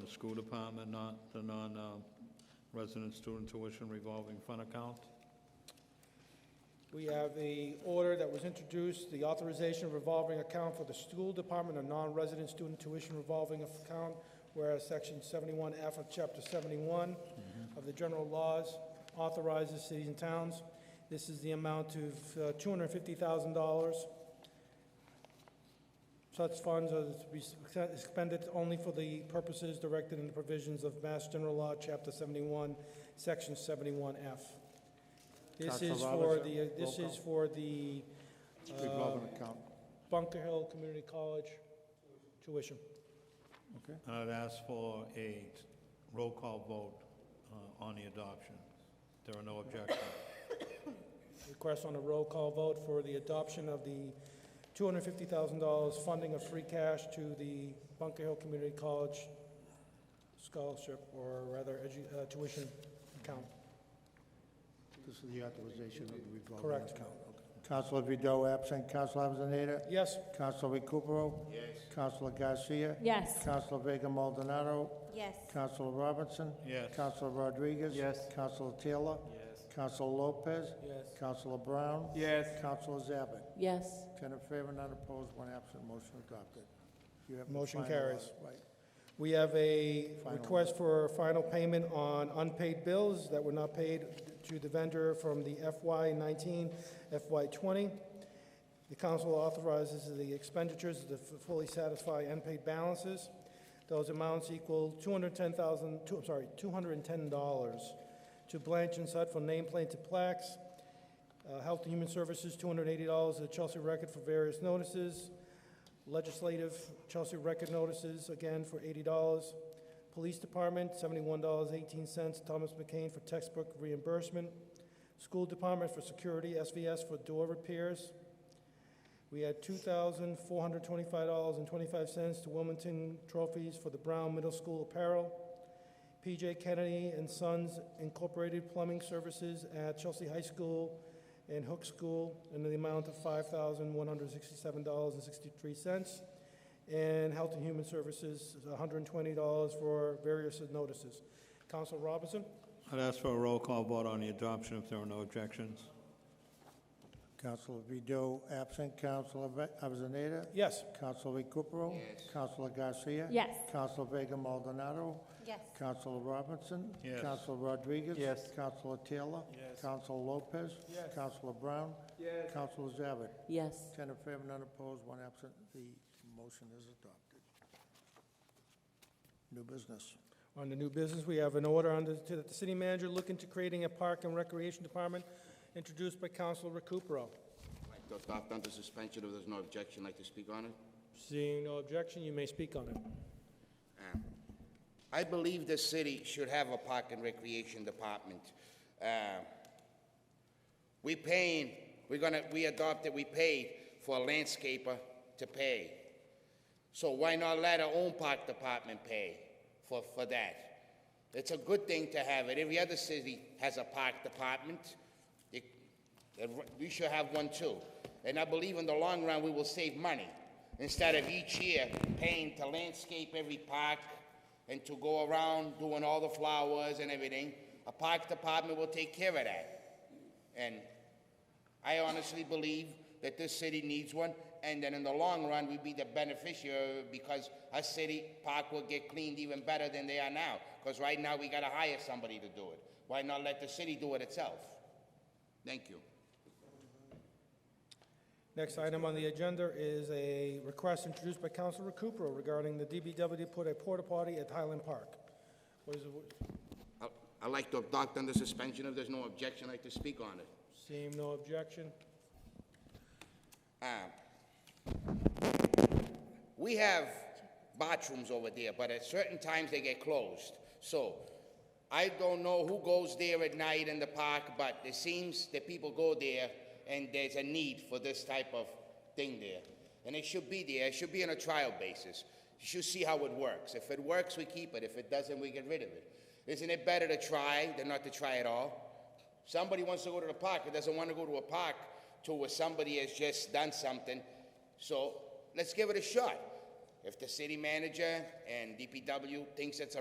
the school department, not the non-resident student tuition revolving fund account. We have the order that was introduced, the authorization revolving account for the school department of non-resident student tuition revolving account, whereas section 71F of chapter 71 of the general laws authorizes cities and towns. This is the amount of uh, $250,000. Such funds are to be expended only for the purposes directed in the provisions of Mass General Law, Chapter 71, Section 71F. This Counselor is for Roberts, the, this roll is for the uh, Revolving account, Bunker Hill Community College tuition. okay? And I'd ask for a roll call vote uh, on the adoption. There are no objections. Request on a roll call vote for the adoption of the $250,000 funding of free cash to the Bunker Hill Community College scholarship, or rather, edu- uh, tuition account. This is the authorization of the revolving account. Correct. Counselor Vido absent, Counselor Avellaneda? Yes, Counselor Recupero? Yes. Counselor Garcia? Yes. Counselor Vega Maldonado? Yes. Counselor Robinson? Yes. Counselor Rodriguez? Yes. Counselor Taylor? Yes. Counselor Lopez? Yes. Counselor Brown? Yes. Counselor Zabit? Yes. Ten in favor, none opposed, one absent, motion adopted. You have the Motion final order, carries. Right. we have a Final. request for final payment on unpaid bills that were not paid to the vendor from the FY nineteen, FY twenty. The council authorizes the expenditures to f- fully satisfy unpaid balances. Those amounts equal two hundred ten thousand, two, I'm sorry, two hundred and ten dollars to Blanch and Sut for nameplate to plaques. Uh, Health and Human Services, two hundred eighty dollars to the Chelsea Record for various notices. Legislative, Chelsea Record Notices, again for eighty dollars. Police Department, seventy-one dollars, eighteen cents. Thomas McCain for textbook reimbursement. School Department for Security, SVS for door repairs. We had two thousand four hundred twenty-five dollars and twenty-five cents to Wilmington Trophies for the Brown Middle School apparel. PJ Kennedy and Sons Incorporated Plumbing Services at Chelsea High School and Hook School in the amount of five thousand one hundred sixty-seven dollars and sixty-three cents. And Health and Human Services, hundred and twenty dollars for various notices. Council Robinson? I'd ask for a roll call vote on the adoption if there are no objections. Counselor Vido absent, Counselor Ve- Avellaneda? Yes. Counselor Recupero? Yes. Counselor Garcia? Yes. Counselor Vega Maldonado? Yes. Counselor Robinson? Yes. Counselor Rodriguez? Yes. Counselor Taylor? Yes. Counselor Lopez? Yes. Counselor Brown? Yes. Counselor Zabit? Yes. Ten in favor, none opposed, one absent. The motion is adopted. New business. On the new business, we have an order under, to the city manager looking to creating a park and recreation department, introduced by Council Recupero. To adopt under suspension, if there's no objection, like to speak on it? Seeing no objection, you may speak on it. I believe the city should have a park and recreation department. Uh, We paying, we're gonna, we adopted, we paid for a landscaper to pay. So why not let our own park department pay for, for that? It's a good thing to have it. Every other city has a park department. It- it- We should have one too. And I believe in the long run, we will save money. Instead of each year paying to landscape every park and to go around doing all the flowers and everything, a park department will take care of that. And I honestly believe that this city needs one, and that in the long run, we'd be the beneficiary because our city park will get cleaned even better than they are now. Because right now, we gotta hire somebody to do it. Why not let the city do it itself? Thank you. Next item on the agenda is a request introduced by Council Recupero regarding the DBW put a porta potty at Highland Park. What is the- I- I'd like to adopt under suspension if there's no objection, I'd like to speak on it. Seeing no objection, Um, We have bathrooms over there, but at certain times they get closed. So I don't know who goes there at night in the park, but it seems that people go there and there's a need for this type of thing there. And it should be there, it should be on a trial basis. You should see how it works. If it works, we keep it. If it doesn't, we get rid of it. Isn't it better to try than not to try at all? Somebody wants to go to the park, and doesn't want to go to a park to where somebody has just done something. So let's give it a shot. If the city manager and DPW thinks it's a